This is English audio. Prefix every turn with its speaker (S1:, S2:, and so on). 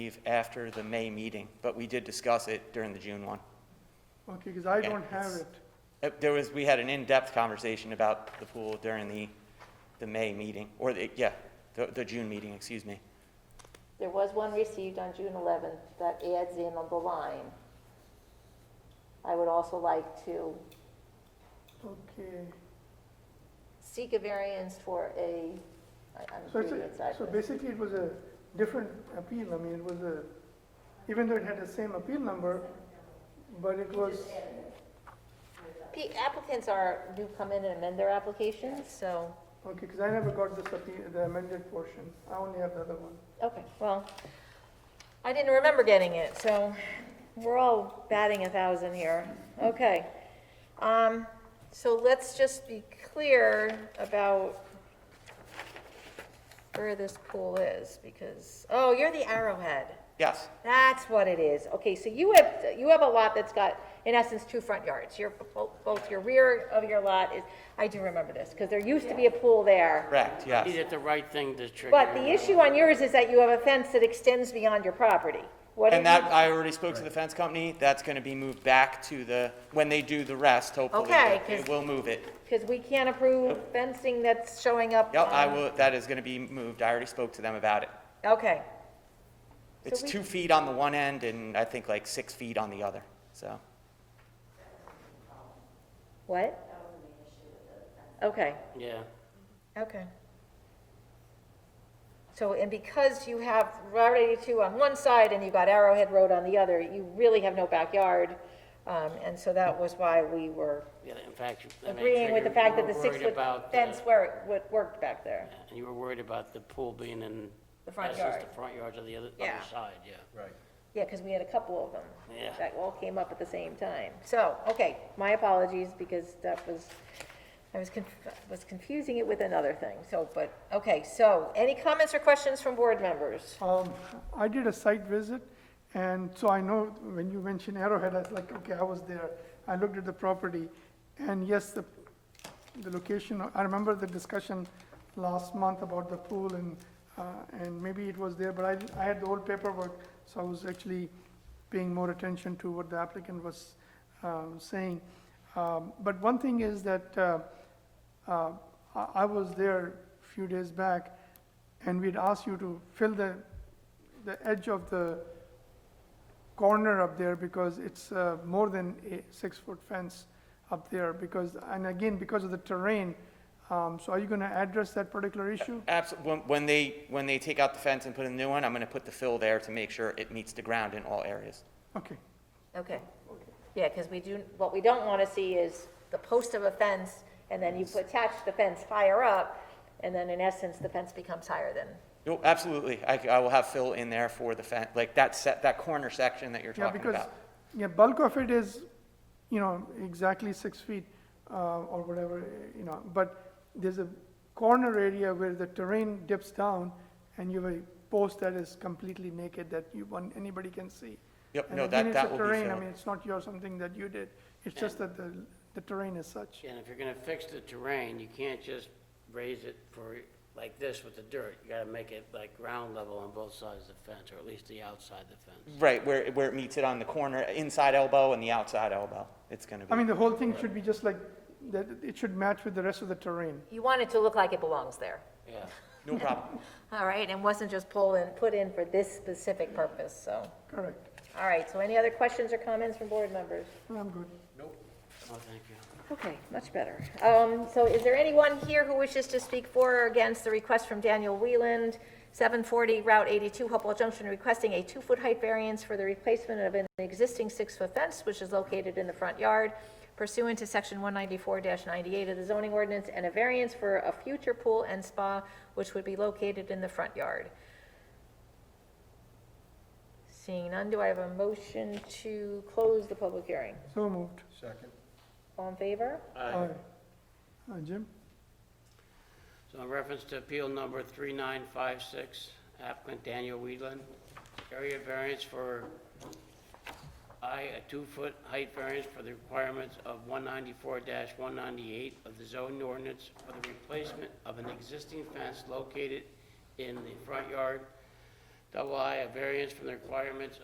S1: leave after the May meeting, but we did discuss it during the June one.
S2: Okay, because I
S1: Yeah,
S2: don't have
S1: it's-
S2: it.
S1: Uh, There was, we had an in-depth conversation about the pool during the, the May meeting, or the, yeah, the, the June meeting, excuse me.
S3: There was one received on June eleventh that adds in on the line. I would also like to
S2: Okay.
S3: seek a variance for a, I- I'm
S2: So it's,
S3: reading it
S2: a- so
S3: sideways.
S2: basically it was a different appeal. I mean, it was a, even though it had the same appeal number, but it was,
S3: P- Applicants are, do come in and amend their applications, so,
S2: okay, because I never got this appeal, the amended portion. I only have the other one.
S3: okay, well, I didn't remember getting it, so we're all batting a thousand here. Okay. Um, so let's just be clear about where this pool is, because, oh, you're the Arrowhead.
S1: Yes,
S3: That's what it is. Okay, so you have, you have a lot that's got, in essence, two front yards. Your, bo- both your rear of your lot is, I do remember this, because there used to be a pool there.
S1: correct,
S4: Is
S1: yes.
S4: it the right thing to trigger?
S3: But the issue on yours is that you have a fence that extends beyond your property. What
S1: And
S3: did you-
S1: that, I already spoke to the fence company, that's gonna be moved back to the, when they do the rest, hopefully.
S3: Okay,
S1: they
S3: 'cause-
S1: will move it.
S3: Because we can't approve fencing that's showing up.
S1: Yep, I
S3: on-
S1: will, that is gonna be moved, I already spoke to them about it.
S3: Okay,
S1: It's
S3: we-
S1: two feet on the one end and I think like six feet on the other, so.
S3: what? Okay,
S4: Yeah.
S3: okay. So, and because you have Route 82 on one side and you've got Arrowhead Road on the other, you really have no backyard. um, And so that was why we were
S4: Yeah, in fact. you- I mean,
S3: agreeing with the
S4: trigger-
S3: fact
S4: you
S3: that the
S4: were worried
S3: six-foot
S4: about the-
S3: fence where it would- worked back there.
S4: And you were worried about the pool being in.
S3: The front
S4: that's just
S3: yard.
S4: The front yards of the other,
S3: Yeah.
S4: other side, yeah.
S5: Right.
S3: Yeah, because we had a couple of them.
S4: Yeah.
S3: That all came up at the same time. So, okay, my apologies, because that was, I was, conf- was confusing it with another thing, so, but, okay, so, any comments or questions from board members?
S2: Um, I did a site visit, and so I know when you mentioned Arrowhead, I was like, okay, I was there. I looked at the property, and yes, the, the location, I remember the discussion last month about the pool and, uh, and maybe it was there, but I, I had the old paperwork, so I was actually paying more attention to what the applicant was, um, saying. Um, but one thing is that, uh, uh, I, I was there a few days back, and we'd asked you to fill the, the edge of the corner up there because it's uh, more than a six-foot fence up there because, and again, because of the terrain. Um, So are you going to address that particular issue?
S1: Absolutely. When, when they, when they take out the fence and put in a new one, I'm gonna put the fill there to make sure it meets the ground in all areas.
S2: Okay,
S3: Okay. Yeah, because we do, what we don't want to see is the post of a fence, and then you put- attach the fence higher up, and then in essence, the fence becomes higher than,
S1: No, absolutely. I, c- I will have fill in there for the fence, like that set, that corner section that you're
S2: yeah,
S1: talking
S2: because,
S1: about.
S2: yeah, bulk of it is, you know, exactly six feet uh, or whatever, eh, you know, but there's a corner area where the terrain dips down and you have a post that is completely naked that you, one- anybody can see.
S1: Yep,
S2: And
S1: no,
S2: again,
S1: that,
S2: it's a
S1: that will be
S2: terrain, I
S1: filled.
S2: mean, it's not your, something that you did, it's just that the, the terrain is such.
S4: And if you're gonna fix the terrain, you can't just raise it for, like this with the dirt. You gotta make it like ground level on both sides of the fence, or at least the outside of the fence.
S1: Right, where, where it meets it on the corner, inside elbow and the outside elbow. It's gonna
S2: I mean,
S1: be,
S2: the whole thing should be just like, that, it should match with the rest of the terrain.
S3: you want it to look like it belongs there.
S4: Yeah.
S1: no problem.
S3: All right, and wasn't just pulled in, put in for this specific purpose, so.
S2: Correct,
S3: All right, so any other questions or comments from board members?
S2: I'm good.
S4: Oh, thank you.
S3: Okay, much better. Um, So is there anyone here who wishes to speak for or against the request from Daniel Wheeland, 740 Route 82, Hopewell Junction, requesting a two-foot height variance for the replacement of an existing six-foot fence, which is located in the front yard pursuant to Section 194-98 of the zoning ordinance, and a variance for a future pool and spa, which would be located in the front yard? Seeing none, do I have a motion to close the public hearing?
S2: So moved.
S5: Second.
S3: All in favor?
S2: Aye. Uh, Jim?
S4: So in reference to appeal number 3956, applicant Daniel Weedland, area variance for, I, a two-foot height variance for the requirements of 194-198 of the zoning ordinance for the replacement of an existing fence located in the front yard double I, a variance from the requirements